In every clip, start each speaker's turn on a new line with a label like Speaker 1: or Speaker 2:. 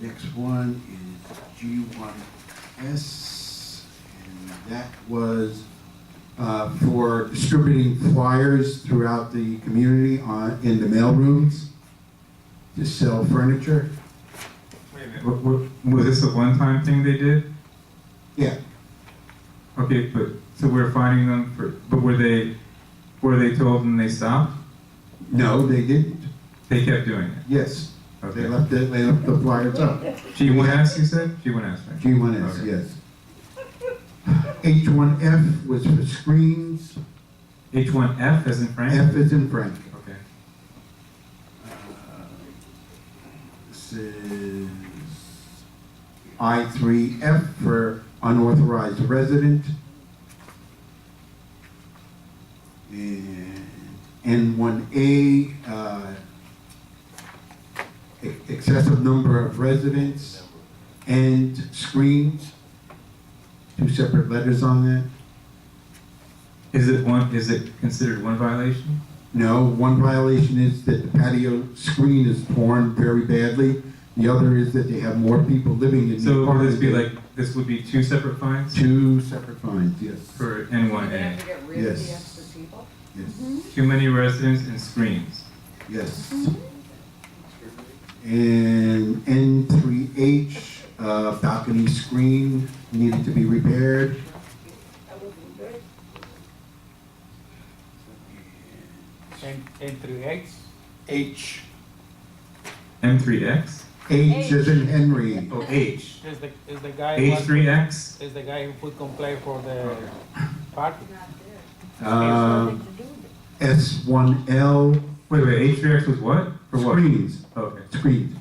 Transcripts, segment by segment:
Speaker 1: The next one is G1S, and that was uh, for distributing flyers throughout the community on, in the mailrooms to sell furniture.
Speaker 2: Wait a minute, what, what, was this a one-time thing they did?
Speaker 1: Yeah,
Speaker 2: Okay, but, so we're finding them for, but were they, were they told and they stopped?
Speaker 1: no, they didn't.
Speaker 2: They kept doing it,
Speaker 1: Yes, they
Speaker 2: okay.
Speaker 1: left the, they left the flyers up.
Speaker 2: G1S, you said? G1S, right?
Speaker 1: G1S,
Speaker 2: Okay.
Speaker 1: yes. H1F was for screens,
Speaker 2: H1F as in Frank?
Speaker 1: F is in Frank.
Speaker 2: Okay.
Speaker 1: This is I3F for unauthorized resident. And N1A, uh, e- excessive number of residents and screens. Two separate letters on that.
Speaker 2: Is it one, is it considered one violation?
Speaker 1: No, one violation is that the patio screen is torn very badly. The other is that they have more people living in the
Speaker 2: So would
Speaker 1: apartment.
Speaker 2: this be like, this would be two separate fines
Speaker 1: Two separate fines, yes,
Speaker 2: for
Speaker 3: You're gonna have
Speaker 2: N1A?
Speaker 3: to get rid of the
Speaker 1: Yes.
Speaker 3: extra people?
Speaker 1: yes,
Speaker 2: Too many residents and screens.
Speaker 1: yes. And N three H, uh, balcony screen needed to be repaired.
Speaker 4: N, N through X,
Speaker 1: H,
Speaker 2: M3X?
Speaker 1: H is in Henry,
Speaker 2: Oh, H.
Speaker 4: is the, is the guy. who-
Speaker 2: H3X?
Speaker 4: Is the guy who put complaint for the
Speaker 2: Okay.
Speaker 4: party.
Speaker 1: uh, S one L,
Speaker 2: Wait, wait, H3X was what? For what?
Speaker 1: screens,
Speaker 2: Okay.
Speaker 1: screens.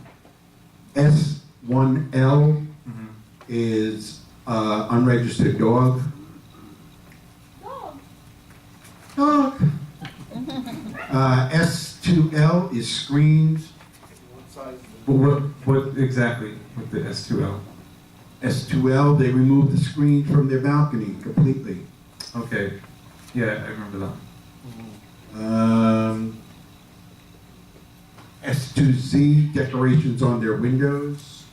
Speaker 1: S one L
Speaker 2: Mhm.
Speaker 1: is uh, unregistered dog. Dog. Uh, S2L is screens.
Speaker 2: But what, what exactly with the S2L?
Speaker 1: S2L, they removed the screen from their balcony completely.
Speaker 2: Okay, yeah, I remember that.
Speaker 1: Um, S2Z, decorations on their windows.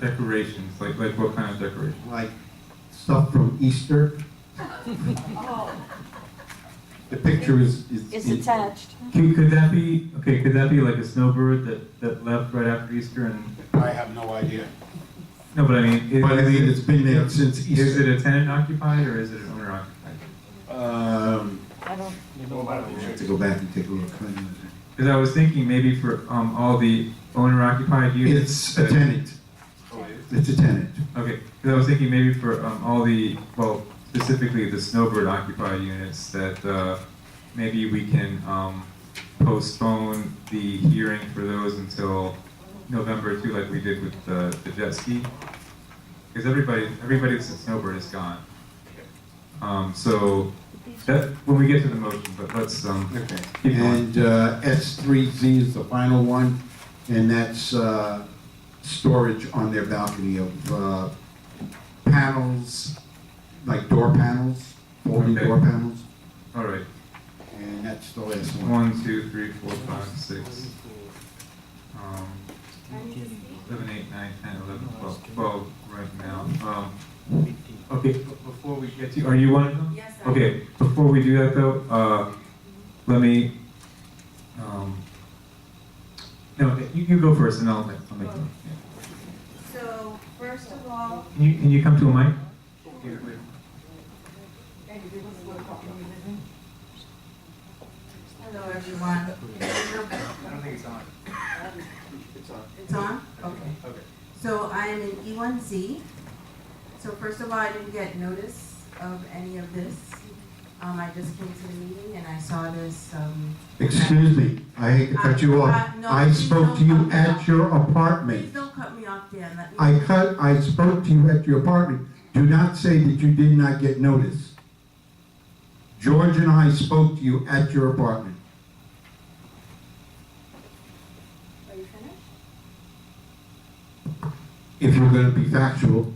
Speaker 2: Decorations, like, like what kind of decoration?
Speaker 1: like stuff from Easter. The picture is, is.
Speaker 5: It's attached.
Speaker 2: Could, could that be, okay, could that be like a snowbird that, that left right after Easter and,
Speaker 6: I have no idea.
Speaker 2: no, but I mean. is-
Speaker 1: But I mean, it's been there since
Speaker 2: Is
Speaker 1: Easter.
Speaker 2: it a tenant occupied or is it an owner occupied?
Speaker 1: Um,
Speaker 5: I don't,
Speaker 4: You know,
Speaker 1: I have to go back and take a look.
Speaker 2: Cause I was thinking maybe for, um, all the owner occupied units.
Speaker 1: It's a
Speaker 2: that-
Speaker 1: tenant, it's a tenant.
Speaker 2: Okay, because I was thinking maybe for um, all the, well, specifically the snowbird occupied units, that uh, maybe we can um, postpone the hearing for those until November too, like we did with the the jet ski. Because everybody, everybody that's a snowbird is gone. Um, So that, when we get to the motion, but let's, um,
Speaker 1: Okay.
Speaker 2: Keep going.
Speaker 1: And uh, S three Z is the final one, and that's uh, storage on their balcony of uh, panels, like door panels, folding
Speaker 2: Okay.
Speaker 1: door panels,
Speaker 2: all right,
Speaker 1: and that's the last one.
Speaker 2: one, two, three, four, five, six, um, seven, eight, nine, ten, eleven, twelve, twelve right now. Um, Okay, b- before we get to, are you one of them?
Speaker 3: Yes, I am.
Speaker 2: Okay, before we do that though, uh, let me, um, no, you, you go first and I'll make, I'll make one. Yeah.
Speaker 3: So, first of all,
Speaker 2: Can you, can you come to a mic?
Speaker 3: hello, everyone.
Speaker 4: I don't think it's on.
Speaker 3: It's on? Okay.
Speaker 4: Okay.
Speaker 3: So I am in E1Z. So first of all, I didn't get notice of any of this. Um, I just came to the meeting and I saw this, um.
Speaker 1: Excuse me, I hate to cut you off.
Speaker 3: I- Uh, no,
Speaker 1: I
Speaker 3: please
Speaker 1: spoke
Speaker 3: don't
Speaker 1: to you
Speaker 3: cut me
Speaker 1: at
Speaker 3: off.
Speaker 1: your
Speaker 3: Please
Speaker 1: apartment.
Speaker 3: don't cut me off, Dan, let me.
Speaker 1: I cut, I spoke to you at your apartment. Do not say that you did not get notice. George and I spoke to you at your apartment.
Speaker 3: Are you finished?
Speaker 1: if you're gonna be factual,